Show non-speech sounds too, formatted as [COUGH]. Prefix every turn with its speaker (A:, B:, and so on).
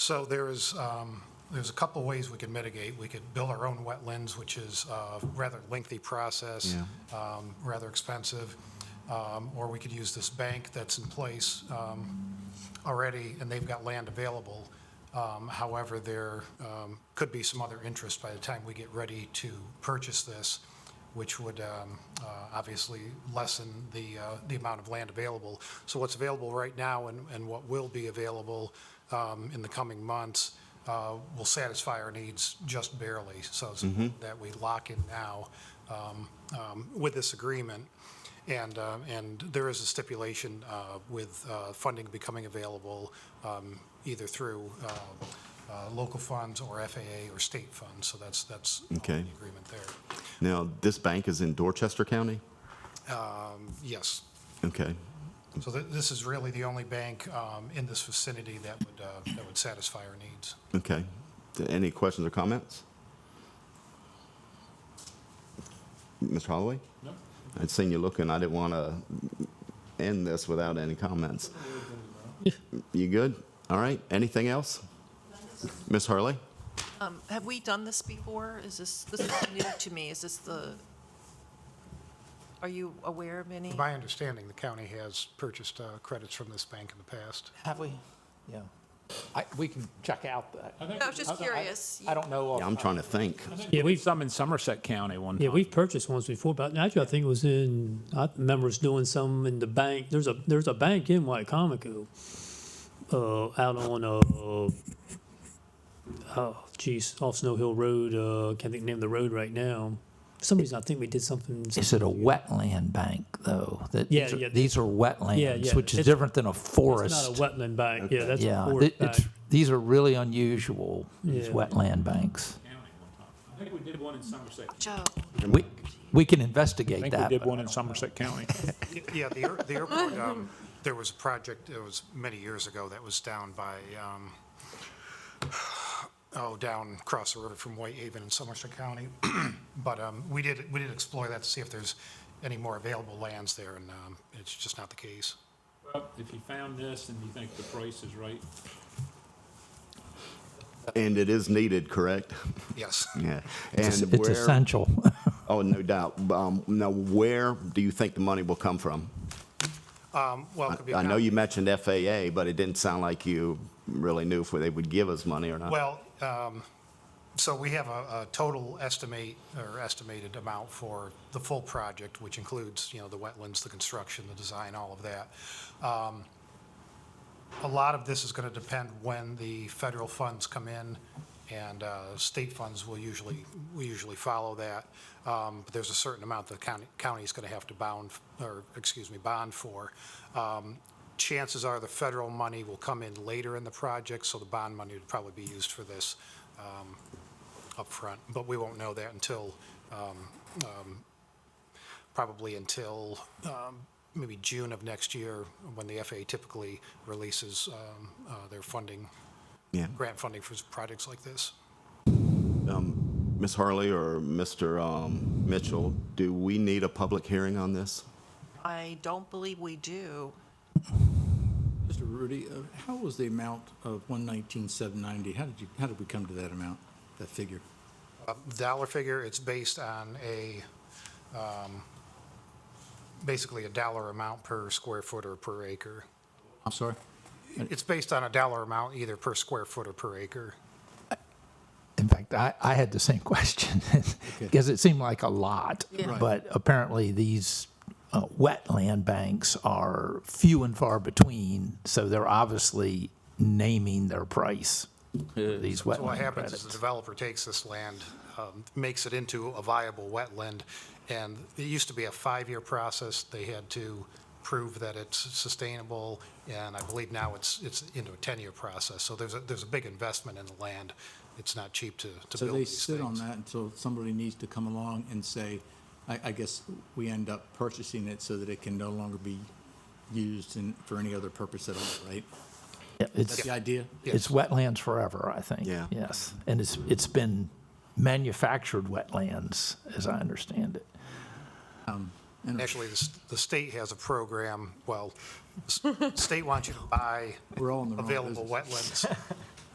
A: So there is, um, there's a couple ways we could mitigate. We could build our own wetlands, which is a rather lengthy process, um, rather expensive, Um, or we could use this bank that's in place um, already, and they've got land available. Um, However, there um, could be some other interest by the time we get ready to purchase this, which would um, uh, obviously lessen the, uh, the amount of land available. So what's available right now and, and what will be available um, in the coming months uh, will satisfy our needs just barely, so it's that we lock in now um, um, with this agreement. And, uh, and there is a stipulation uh, with uh, funding becoming available um, either through uh, uh, local funds or FAA or state funds, so that's, that's all in
B: Okay.
A: the agreement there.
B: Now, this bank is in Dorchester County?
A: Yes,
B: Okay,
A: so th- this is really the only bank um, in this vicinity that would, uh, that would satisfy our needs.
B: okay. Th- Any questions or comments? Mr. Holloway? No. I'd seen you looking, I didn't want to end this without any comments. You good? All right, anything else? Ms. Hurley?
C: Um, Have we done this before? Is this, this is new to me. Is this the, are you aware of any?
A: To my understanding, the county has purchased uh, credits from this bank in the past.
D: Have we? Yeah. I, we can check out that. I
C: I was just curious.
D: I don't know.
B: Yeah, I'm trying to think.
E: Yeah,
D: We've
E: we've
D: some in Somerset County one
E: yeah
D: time.
E: we've purchased ones before, but actually I think it was in I remember us doing some in the bank. There's a there's a bank in Wycomico, uh, out on uh, oh geez, off Snow Hill Road. Uh, can't think of the name of the road right now. For some reason I think we did something.
F: Is it a wetland bank though? That
E: Yeah,
F: these are,
E: yeah.
F: These are wetlands,
E: yeah.
F: which is
E: It's-
F: different than a
E: It's
F: forest.
E: not a wetland bank. Yeah, that's
F: yeah,
E: a forest
F: th-
E: bank.
F: it's, these are really unusual. These
E: Yeah.
F: wetland banks.
D: I think we did one in Somerset.
C: Joe,
F: We we can
D: I
F: investigate
D: think we
F: that.
D: did
F: but-
D: one in Somerset County.
A: Y- Yeah, the air- the airport, um, there was a project, it was many years ago, that was down by, um, oh, down across the river from Whitehaven in Somerset County. [CLEARS THROAT] But um, we did, we did explore that to see if there's any more available lands there, and um, it's just not the case.
G: If you found this and you think the price is right,
B: And it is needed, correct? [LAUGHS]
A: [LAUGHS] Yes.
B: Yeah.
F: It's,
B: And
F: it's
B: where-
F: essential. [LAUGHS]
B: Oh, no doubt. Um, Now, where do you think the money will come from?
A: Um, Well, it could be a
B: I know
A: com-
B: you mentioned FAA, but it didn't sound like you really knew if they would give us money or not.
A: Well, um, so we have a a total estimate, or estimated amount for the full project, which includes, you know, the wetlands, the construction, the design, all of that. Um, A lot of this is going to depend when the federal funds come in, and uh, state funds will usually, we usually follow that. Um, But there's a certain amount the county, county's going to have to bound, or, excuse me, bond for. Um, Chances are the federal money will come in later in the project, so the bond money would probably be used for this um, upfront. But we won't know that until, um, um, probably until um, maybe June of next year, when the FAA typically releases um, uh, their funding,
B: Yeah.
A: grant funding for projects like this.
B: Ms. Harley or Mr. um, Mitchell, do we need a public hearing on this?
C: I don't believe we do.
H: Mr. Rudy, uh, how was the amount of 119,790? How did you, how did we come to that amount, that figure?
A: dollar figure, it's based on a, um, basically a dollar amount per square foot or per acre.
H: I'm sorry?
A: It's based on a dollar amount either per square foot or per acre.
F: In fact, I, I had the same [LAUGHS] question because it seemed like a lot,
H: Right.
F: but apparently these uh, wetland banks are few and far between, so they're obviously naming their price. for These wetland
A: So what happens is
F: credits.
A: the developer takes this land, um, makes it into a viable wetland, and it used to be a five-year process. They had to prove that it's sustainable, and I believe now it's, it's into a 10-year process. So there's a, there's a big investment in the land. It's not cheap to, to
H: So
A: build
H: they
A: these
H: sit on
A: things.
H: that until somebody needs to come along and say, I, I guess we end up purchasing it so that it can no longer be used in, for any other purpose at all, right?
F: Yeah,
H: Is
F: it's-
H: that the idea?
F: It's wetlands forever, I think.
B: Yeah.
F: Yes, and it's, it's been manufactured wetlands, as I understand it.
A: And Actually, the, s- the state has a program, well, the s- state wants you to buy
H: We're all in the wrong
A: available
H: business. [LAUGHS]
A: wetlands.